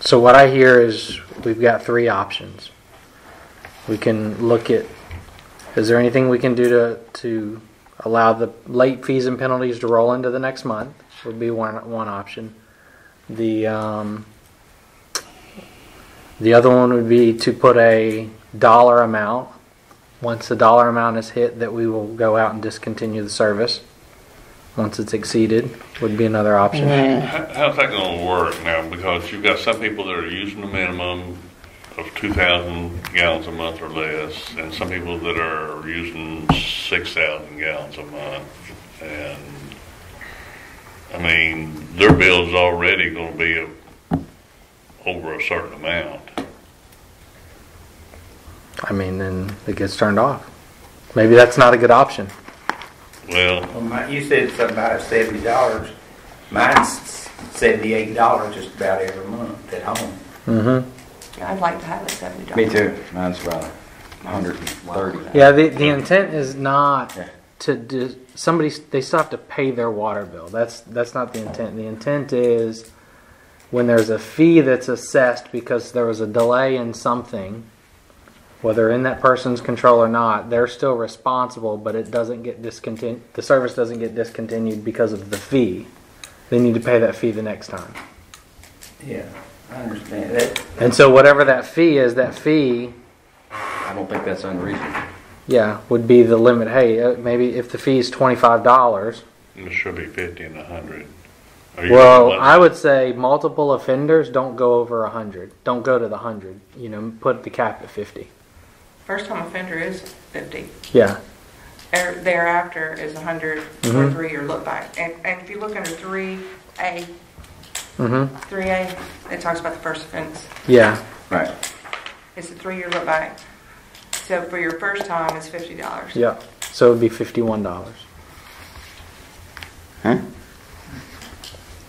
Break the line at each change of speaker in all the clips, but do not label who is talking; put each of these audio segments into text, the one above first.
So what I hear is we've got three options. We can look at, is there anything we can do to, to allow the late fees and penalties to roll into the next month? Would be one, one option. The, um, the other one would be to put a dollar amount. Once the dollar amount is hit, that we will go out and discontinue the service. Once it's exceeded, would be another option.
How- How's that gonna work now? Because you've got some people that are using the minimum of two thousand gallons a month or less, and some people that are using six thousand gallons a month. And, I mean, their bill's already gonna be a- over a certain amount.
I mean, then it gets turned off. Maybe that's not a good option.
Well,
Well, my, you said something about seventy dollars. Mine's seventy-eight dollars just about every month at home.
Mm-hmm.
I'd like to have it seventy dollars.
Me too. Mine's about a hundred and thirty.
Yeah, the, the intent is not
Yeah.
to do, somebody, they still have to pay their water bill. That's, that's not the intent. The intent is when there's a fee that's assessed because there was a delay in something, whether in that person's control or not, they're still responsible, but it doesn't get discontinued, the service doesn't get discontinued because of the fee. They need to pay that fee the next time.
Yeah, I understand that.
And so whatever that fee is, that fee
I don't think that's unreasonable.
Yeah, would be the limit. Hey, uh, maybe if the fee is twenty-five dollars.
it should be fifty and a hundred. Are you-
Well, I would say multiple offenders don't go over a hundred. Don't go to the hundred. You know, put the cap at fifty.
First time offender is fifty.
Yeah,
Er- Thereafter is a hundred
Mm-hmm.
for three-year look back. And, and if you look under three A,
mm-hmm,
three A, it talks about the first offense.
yeah.
Right.
It's a three-year look back. So for your first time, it's fifty dollars.
Yeah, so it'd be fifty-one dollars.
Huh?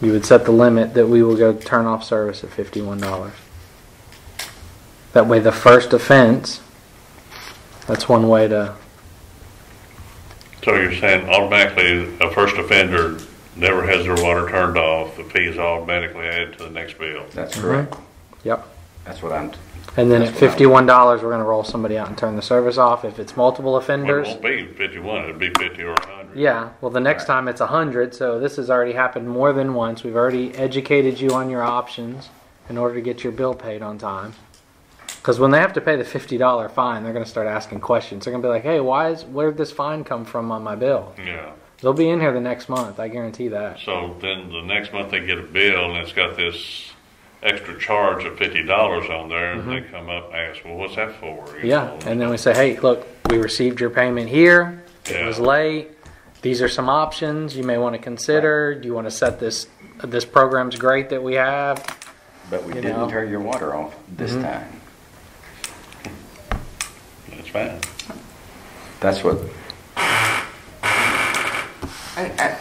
You would set the limit that we will go turn off service at fifty-one dollars. That way, the first offense. That's one way to.
So you're saying automatically, a first offender never has their water turned off, the fee is automatically added to the next bill?
That's correct.
Yep.
That's what I'm,
And then at
That's what I would-
fifty-one dollars, we're gonna roll somebody out and turn the service off. If it's multiple
Well, it
offenders,
won't be fifty-one, it'd be fifty or a hundred.
yeah. Well, the next time it's a hundred. So this has already happened more than once. We've already educated you on your options in order to get your bill paid on time. Because when they have to pay the fifty-dollar fine, they're gonna start asking questions. They're gonna be like, "Hey, why is where'd this fine come from on my bill?"
Yeah,
They'll be in here the next month. I guarantee that.
so then the next month they get a bill and it's got this extra charge of fifty dollars on there and they come up and ask, well, what's that for? You
Mm-hmm. Yeah,
know,
and then we say, hey, look, we received your payment here, it
Yeah.
was late, these are some options you may want to consider, do you want to set this, this program's great that we have?
but we
You know.
didn't turn your water off this time.
That's fine.
That's what,
I- I-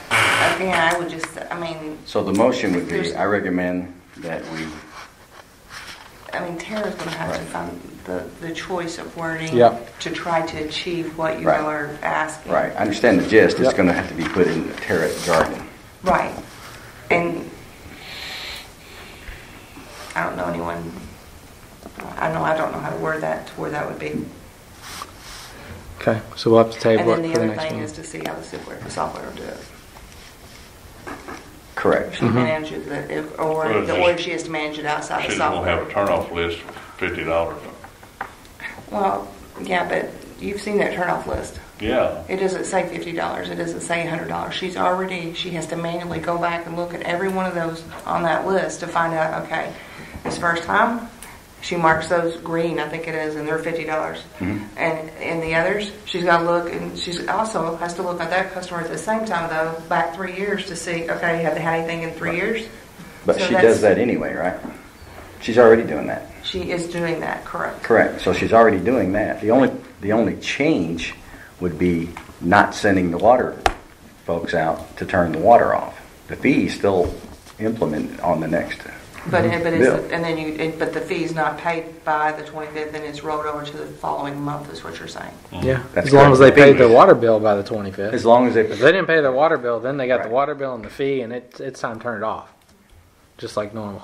Again, I would just, I mean,
so the motion would be,
There's-
I recommend that we,
I mean, Tara's gonna have to find the, the choice of wording
Yep.
to try to achieve what you
Right.
all are asking.
right, I understand the gist, it's
Yep.
gonna have to be put in the Tarrant jargon.
Right. And I don't know anyone, I know, I don't know how to word that, to where that would be.
Okay, so we'll have to
And
table
then
it
the
for the
other
next
thing is
meeting.
to see how the software, the software will do it.
Correct.
Mm-hmm.
She manages it, if- or,
Well,
or if
just-
she has to manage it outside
She
the
just won't have a
software.
turn-off list for fifty dollars.
Well, yeah, but you've seen that turnoff list.
Yeah,
It doesn't say fifty dollars, it doesn't say a hundred dollars. She's already, she has to manually go back and look at every one of those on that list to find out, okay, this first time, she marks those green, I think it is, and they're fifty dollars.
Mm-hmm.
And, and the others, she's gotta look, and she's also has to look at that customer at the same time though, back three years to see, okay, have they had anything in three years?
But
So
she
that's-
does that anyway, right? She's already doing that.
She is doing that, correct?
Correct, so she's already doing that. The only, the only change would be not sending the water folks out to turn the water off. The fee's still implemented on the next.
But, but it's,
Yeah.
and then you, but the fee's not paid by the twenty-fifth and it's rolled over to the following month is what you're saying.
Yeah,
That's
as long as they
correct.
paid their water bill by the twenty-fifth.
As long as
If they
they,
didn't pay their water bill, then they got the
Right.
water bill and the fee, and it's, it's time to turn it off, just like normal.